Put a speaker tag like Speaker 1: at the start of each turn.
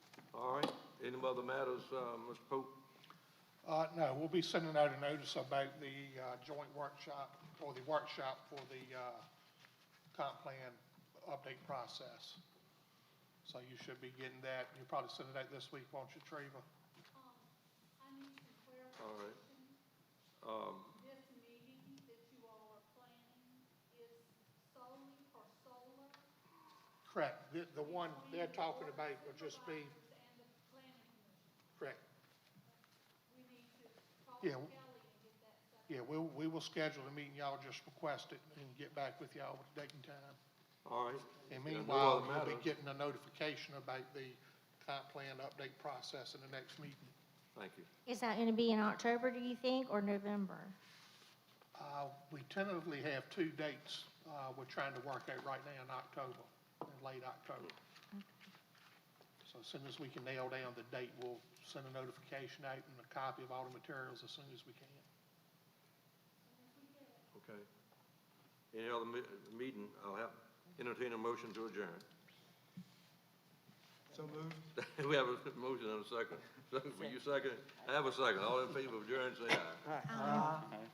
Speaker 1: of other matters, uh, Mr. Pope?
Speaker 2: Uh, no, we'll be sending out a notice about the, uh, joint workshop, or the workshop for the, uh, comp plan update process. So you should be getting that, you'll probably send it out this week, won't you, Treva?
Speaker 3: Um, I need some
Speaker 1: All right.
Speaker 3: clarification.
Speaker 1: Um,
Speaker 3: This meeting that you all are planning is solely for solar?
Speaker 2: Correct, the, the one they're talking about will just be,
Speaker 3: Supervisors And the planning commission.
Speaker 2: correct.
Speaker 3: We need to call
Speaker 2: Yeah.
Speaker 3: Kelly and get that set.
Speaker 2: Yeah, we'll, we will schedule a meeting, y'all just request it and get back with y'all with a date and time.
Speaker 1: All right.
Speaker 2: And
Speaker 1: Yeah, no
Speaker 2: meanwhile,
Speaker 1: other
Speaker 2: you'll
Speaker 1: matter.
Speaker 2: be getting a notification about the comp plan update process in the next meeting.
Speaker 1: Thank you.
Speaker 4: Is that going to be in October, do you think, or November?
Speaker 2: Uh, We tentatively have two dates uh, we're trying to work out right now in October, in late October. So as soon as we can nail down the date, we'll send a notification out and a copy of all the materials as soon as we can.
Speaker 1: Okay. Any other me- meeting, I'll have, entertain a motion to adjourn. So moved. We have a motion and a second. So, Will you second? it? I have a second. All in favor of adjourn, say aye.